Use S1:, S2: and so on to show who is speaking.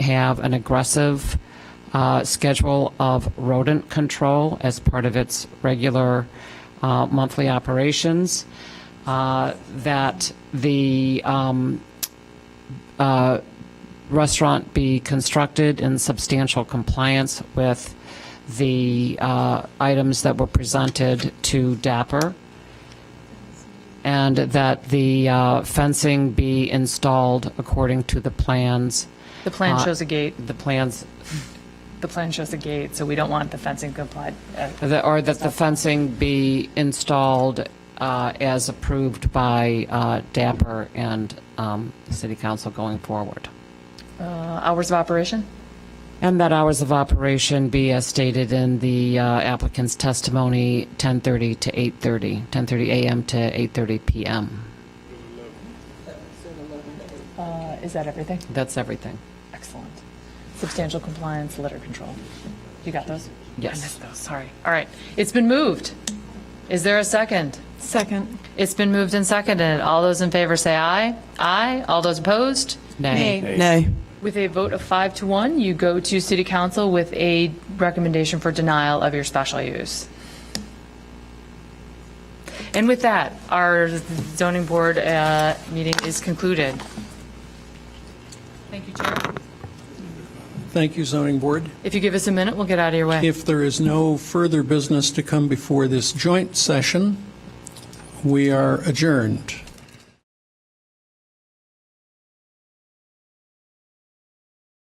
S1: have an aggressive uh, schedule of rodent control as part of its regular uh, monthly operations, uh, that the um, uh, restaurant be constructed in substantial compliance with the uh, items that were presented to DAPR, and that the uh, fencing be installed according to the plans.
S2: The plan
S1: Uh,
S2: shows a gate,
S1: The plans,
S2: the plan shows a gate, so we don't want the fencing complied. uh,
S1: that- or that the fencing be installed uh, as approved by uh, DAPR and um, the City Council going forward.
S2: uh, Hours of operation?
S1: And that hours of operation be as stated in the uh, applicant's testimony, 10:30 to 8:30, 10:30 a.m. to 8:30 p.m.
S2: Uh, Is that everything?
S1: That's everything.
S2: Excellent. Substantial compliance, litter control. You got those?
S1: Yes.
S2: I missed those, sorry. All right. It's been moved. Is there a second?
S3: Second.
S2: It's been moved and seconded. All those in favor say aye. Aye. All those opposed?
S1: Nay.
S3: Nay.
S2: With a vote of five to one, you go to City Council with a recommendation for denial of your special use. And with that, our zoning board uh, meeting is concluded. Thank you, Chair.
S4: Thank you, zoning board.
S2: If you give us a minute, we'll get out of your way.
S4: If there is no further business to come before this joint session, we are adjourned.